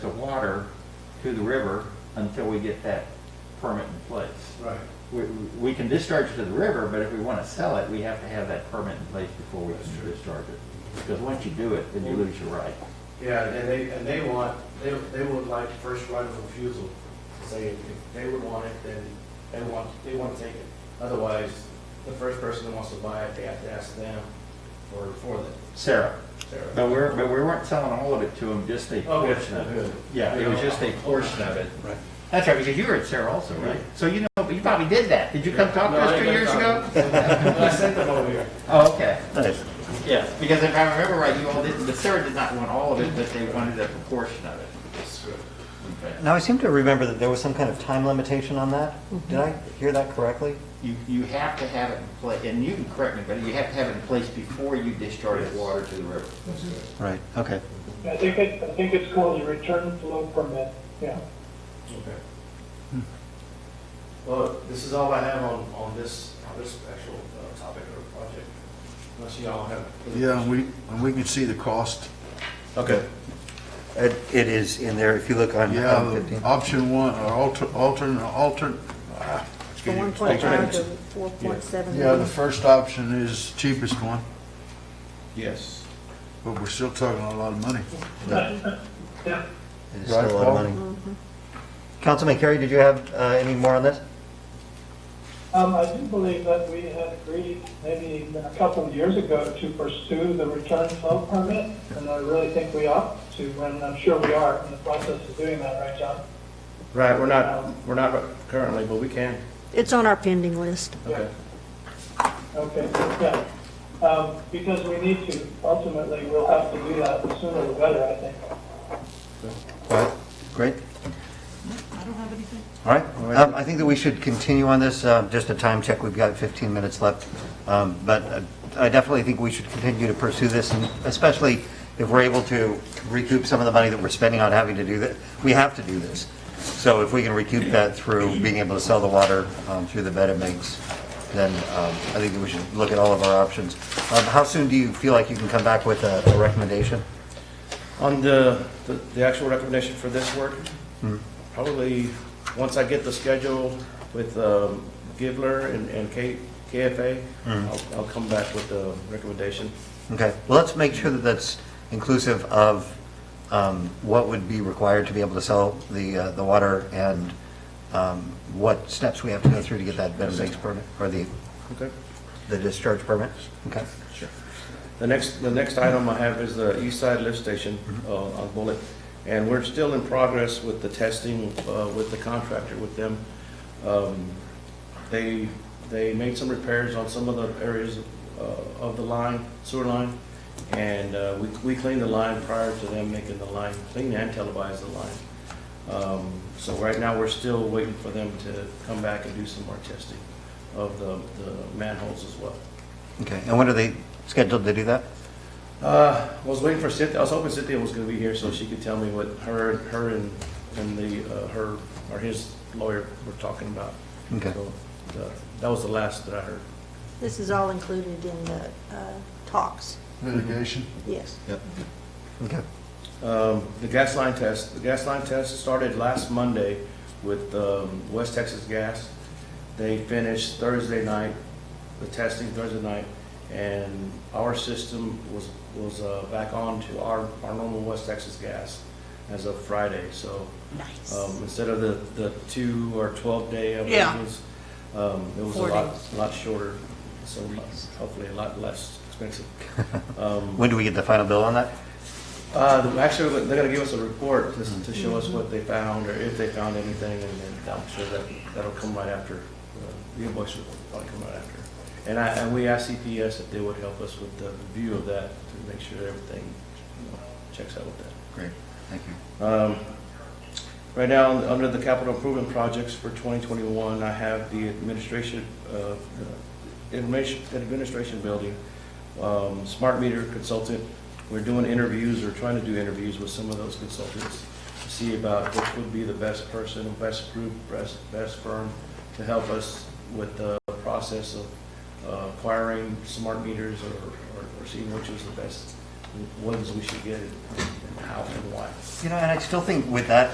of water to the river until we get that permit in place. Right. We, we can discharge it to the river, but if we want to sell it, we have to have that permit in place before we That's can true. discharge it. Because once you do it, then you lose your right. Yeah, and they, and they want, they, they would like first right of refusal, to say if if they would want it, then they want, they want to take it. Otherwise, the first person that wants to buy it, they have to ask them for, for that, Sarah, Sarah. but we're, but we weren't selling all of it to them, just a Oh, Okay, portion of it. good. Yeah, it was just a portion of it. Right. That's right, because you were at Sarah also, right? So you know, but you probably did that. Did you come talk to No, I us two didn't years ago? come. I sent them over here. Oh, okay. Nice. Yeah, because if I remember right, you all didn't, the Sarah did not want all of it, but they wanted a proportion of it. Okay. Now, I seem to remember that there was some kind of time limitation on that. Did I hear that correctly? You, you have to have it in place, and you can correct me, but you have to have it in place before you discharge Yes. the water to the river. Right, okay. I think it, I think it's called a return flow permit, yeah. Okay. Well, this is all I have on, on this, on this actual uh, topic or project, unless y'all have. other Yeah, and we, and we can see the cost. Okay. It it is in there, if you look on Yeah, on the 15. option one, or alter, alternate, alternate. ah, The excuse me. one point five to four point seven. Yeah, the first option is cheapest one, Yes. but we're still talking a lot of money. Yeah, It is still a lot of Right, money. Councilman Carey, did you have uh, any more on this? um, I do believe that we had agreed maybe a couple of years ago to pursue the return flow permit, and I really think we ought to, and I'm sure we are in the process of doing that, right, John? Right, we're not, we're not currently, but we can. It's on our pending list. Okay. Okay, yeah. Um, because we need to, ultimately, we'll have to do that the sooner the better, I think. All right, great. I don't have anything. All right, Um, I think that we should continue on this, uh, just a time check, we've got 15 minutes left. Um, But uh, I definitely think we should continue to pursue this, and especially if we're able to recoup some of the money that we're spending on having to do that, we have to do this. So if we can recoup that through being able to sell the water um, through the bed it makes, then um, I think that we should look at all of our options. Um, How soon do you feel like you can come back with a a recommendation? On the, the- the actual recommendation for this work, probably, once I get the schedule with um, Givler and and K- KFA, I'll, I'll come back with the recommendation. Okay, well, let's make sure that that's inclusive of um, what would be required to be able to sell the, uh, the water and um, what steps we have to go through to get that bed and breakfast permit, or the, Okay? the discharge permit? Okay, Sure. The next, the next item I have is the East Side Lift Station uh, on Bullet. And we're still in progress with the testing uh, with the contractor, with them. Um, They, they made some repairs on some of the areas uh, of the line, sewer line. And uh, we we cleaned the line prior to them making the line, clean and televised the line. Um, So right now, we're still waiting for them to come back and do some more testing of the the manholes as well. okay, and when are they scheduled to do that? Uh, I was waiting for Cynthia, I was hoping Cynthia was gonna be here so she could tell me what her, her and, and the, uh, her, or his lawyer were talking about. Okay. So, uh, That was the last that I heard. This is all included in the uh, talks, Litigation. yes. Okay, Um, The gas line test, the gas line test started last Monday with um, West Texas Gas. They finished Thursday night, the testing Thursday night, and our system was, was uh, back on to our, our normal West Texas Gas as of Friday, so. Nice. Um, Instead of the, the two or 12-day, I Yeah. believe it was, um, it was a Four lot, days. lot shorter, so hopefully a lot less expensive. Um, when do we get the final bill on that? uh, the- actually, they're gonna give us a report to, Mm-hmm. to show us what they found, or if they found anything, and then I'm sure that, that'll come right after. uh, The invoice will probably come right after. And I, and we asked CPS if they would help us with the review of that, to make sure that everything, you know, checks out with that. Great, thank you. Um, Right now, under the capital improvement projects for 2021, I have the administration, uh, information- administration building, um, smart meter consultant. We're doing interviews, or trying to do interviews with some of those consultants to see about which would be the best person, best group, best best firm to help us with the process of uh, acquiring smart meters or or- or seeing which is the best ones we should get and how and why. You know, and I still think with that